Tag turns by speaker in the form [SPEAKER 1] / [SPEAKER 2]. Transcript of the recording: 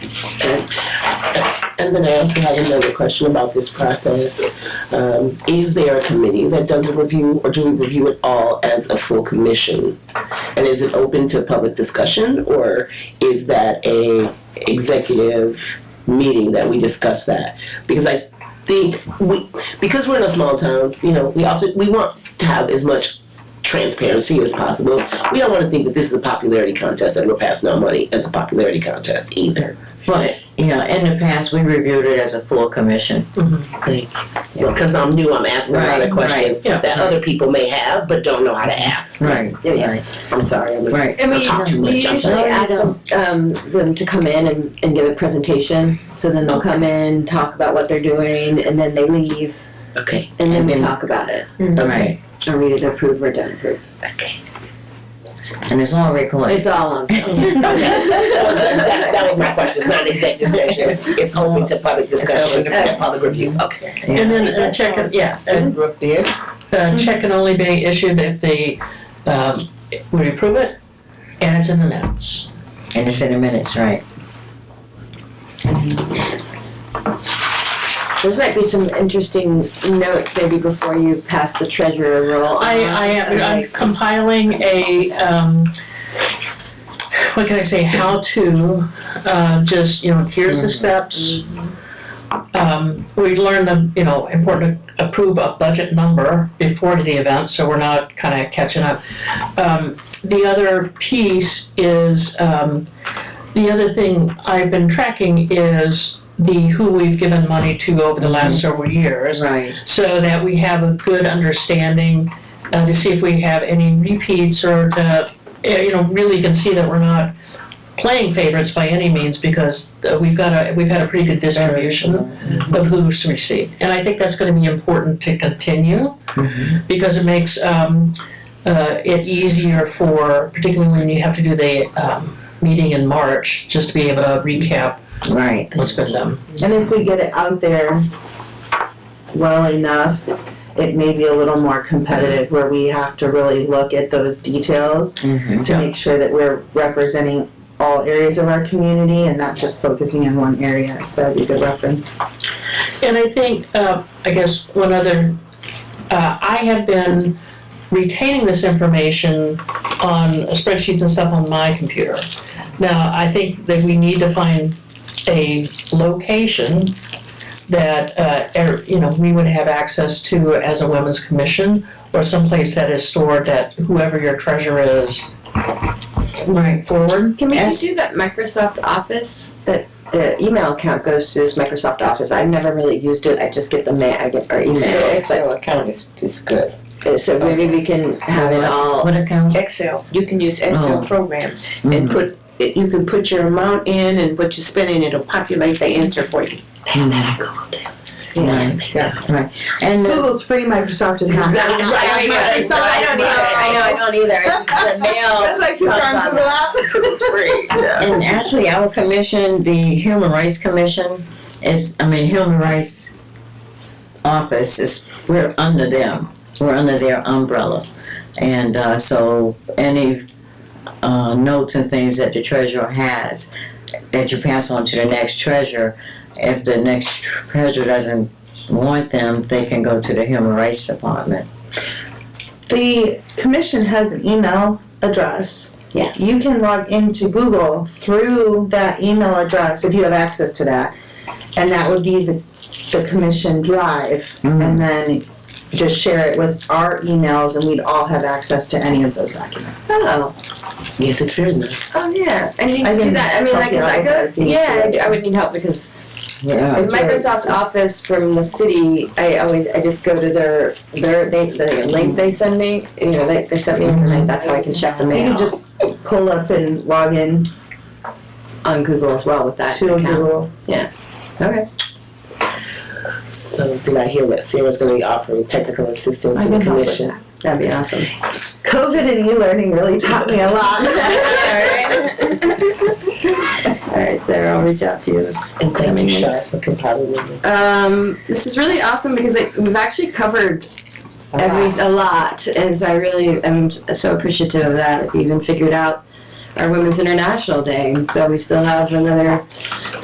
[SPEAKER 1] And then I also have another question about this process. Um, is there a committee that does a review, or do we review it all as a full commission? And is it open to public discussion, or is that a executive meeting that we discuss that? Because I think we, because we're in a small town, you know, we often we want to have as much transparency as possible. We don't want to think that this is a popularity contest and we're passing out money as a popularity contest either.
[SPEAKER 2] But, you know, in the past, we reviewed it as a full commission.
[SPEAKER 1] Thank you. Because I'm new, I'm asking a lot of
[SPEAKER 2] Right,
[SPEAKER 1] questions
[SPEAKER 3] right.
[SPEAKER 1] that other people may have but don't know how to ask.
[SPEAKER 2] Right,
[SPEAKER 3] Yeah.
[SPEAKER 1] I'm sorry, I'm
[SPEAKER 2] right.
[SPEAKER 4] And
[SPEAKER 1] I
[SPEAKER 4] we,
[SPEAKER 1] talk too
[SPEAKER 4] we
[SPEAKER 1] much, I'm
[SPEAKER 4] usually
[SPEAKER 3] So I
[SPEAKER 1] sorry.
[SPEAKER 3] ask
[SPEAKER 4] ask them,
[SPEAKER 3] them, um, them to come in and, and give a presentation, so then they'll come in, talk about what they're doing, and then they leave,
[SPEAKER 1] Okay.
[SPEAKER 3] and then we
[SPEAKER 2] Mhm.
[SPEAKER 3] talk about it.
[SPEAKER 1] Okay.
[SPEAKER 3] Are we either approve or don't approve?
[SPEAKER 1] Okay.
[SPEAKER 2] And it's all recorded.
[SPEAKER 3] It's all on film.
[SPEAKER 1] Okay. That was, that, that was my question. It's not an executive session. It's open to public discussion
[SPEAKER 4] open to-
[SPEAKER 1] and public review. Okay.
[SPEAKER 2] Yeah.
[SPEAKER 4] and then a check, can- yeah, and a check can only be issued if the, um, we approve it and it's in the minutes.
[SPEAKER 2] And it's in the minutes, right.
[SPEAKER 3] Those might be some interesting notes maybe before you pass the treasurer role.
[SPEAKER 4] I, I am, I'm compiling a, um, what can I say, how to, uh, just, you know, here's the steps. Um, we learned the, you know, important to approve a budget number before the event, so we're not kinda catching up. Um, the other piece is, um, the other thing I've been tracking is the who we've given money to over the last several years
[SPEAKER 2] Right.
[SPEAKER 4] so that we have a good understanding uh, to see if we have any repeats or to, eh, you know, really can see that we're not playing favorites by any means because uh, we've got a, we've had a pretty good distribution of who's received. And I think that's gonna be important to continue because it makes, um, uh, it easier for, particularly when you have to do the, um, meeting in March, just to be able to recap
[SPEAKER 2] Right.
[SPEAKER 4] what's been done.
[SPEAKER 5] And if we get it out there well enough, it may be a little more competitive where we have to really look at those details
[SPEAKER 2] Mhm.
[SPEAKER 5] to
[SPEAKER 4] Yeah.
[SPEAKER 5] make sure that we're representing all areas of our community and not just focusing in one area. So that'd be a good reference.
[SPEAKER 4] And I think, uh, I guess one other, uh, I have been retaining this information on spreadsheets and stuff on my computer. Now, I think that we need to find a location that, uh, er- you know, we would have access to as a women's commission or someplace that is stored that whoever your treasurer is, right forward.
[SPEAKER 3] Can we
[SPEAKER 2] Yes.
[SPEAKER 3] do that Microsoft Office? That the email account goes to this Microsoft Office. I've never really used it. I just get the ma- I get our email.
[SPEAKER 6] Excel account is, is good.
[SPEAKER 3] But- So maybe we can have it all.
[SPEAKER 2] What account?
[SPEAKER 6] Excel, you can use Excel
[SPEAKER 2] Oh. Mm-hmm.
[SPEAKER 6] program and put, it- you can put your amount in and what you're spending, it'll populate the answer for you.
[SPEAKER 2] Yes. Right. And uh, the-
[SPEAKER 5] Google's free, Microsoft is
[SPEAKER 3] I
[SPEAKER 5] not.
[SPEAKER 3] mean, I- so I don't either. I know I don't either. It's just the mail.
[SPEAKER 5] That's why people are
[SPEAKER 3] comes
[SPEAKER 5] on
[SPEAKER 3] on
[SPEAKER 5] Google Apps.
[SPEAKER 2] And Um, actually, our commission, the Human Rights Commission, is, I mean, Human Rights Office is, we're under them. We're under their umbrella. And uh, so any uh, notes and things that the treasurer has that you pass on to the next treasurer, if the next treasurer doesn't want them, they can go to the Human Rights Department.
[SPEAKER 5] The commission has an email address.
[SPEAKER 3] Yes.
[SPEAKER 5] You can log into Google through that email address if you have access to that. And that would be the, the commission drive. And then just share it with our emails and we'd all have access to any of those documents.
[SPEAKER 3] Oh,
[SPEAKER 1] Yes, it's very nice.
[SPEAKER 3] oh yeah. And you
[SPEAKER 5] I
[SPEAKER 3] can do
[SPEAKER 5] didn't
[SPEAKER 3] that. I mean, like,
[SPEAKER 5] copy
[SPEAKER 3] cause
[SPEAKER 5] all
[SPEAKER 3] I
[SPEAKER 5] of
[SPEAKER 3] go,
[SPEAKER 5] those things,
[SPEAKER 3] yeah, I,
[SPEAKER 5] yeah.
[SPEAKER 3] do- I would need help because
[SPEAKER 2] Yeah.
[SPEAKER 3] the Microsoft Office from the city, I always, I just go to their, their, they, the link they send me, you know, they, they sent me, and I- that's how I can check the
[SPEAKER 5] You
[SPEAKER 3] mail
[SPEAKER 5] can just pull up and log in
[SPEAKER 3] on Google as well with that
[SPEAKER 5] to
[SPEAKER 3] account.
[SPEAKER 5] Google.
[SPEAKER 3] Okay.
[SPEAKER 1] So did I hear that Sarah's gonna be offering technical assistance
[SPEAKER 5] I
[SPEAKER 1] to the
[SPEAKER 5] can help with
[SPEAKER 1] commission?
[SPEAKER 3] That'd be awesome.
[SPEAKER 5] COVID and e-learning really taught me a lot.
[SPEAKER 3] Alright, Sarah, I'll reach out to you.
[SPEAKER 1] And thank you,
[SPEAKER 3] Coming
[SPEAKER 1] Shar,
[SPEAKER 3] next.
[SPEAKER 1] for compiling it.
[SPEAKER 3] Um, this is really awesome because I, we've actually covered every, a lot, and so I really am so appreciative of that, that we even figured out our Women's International Day, and so we still have another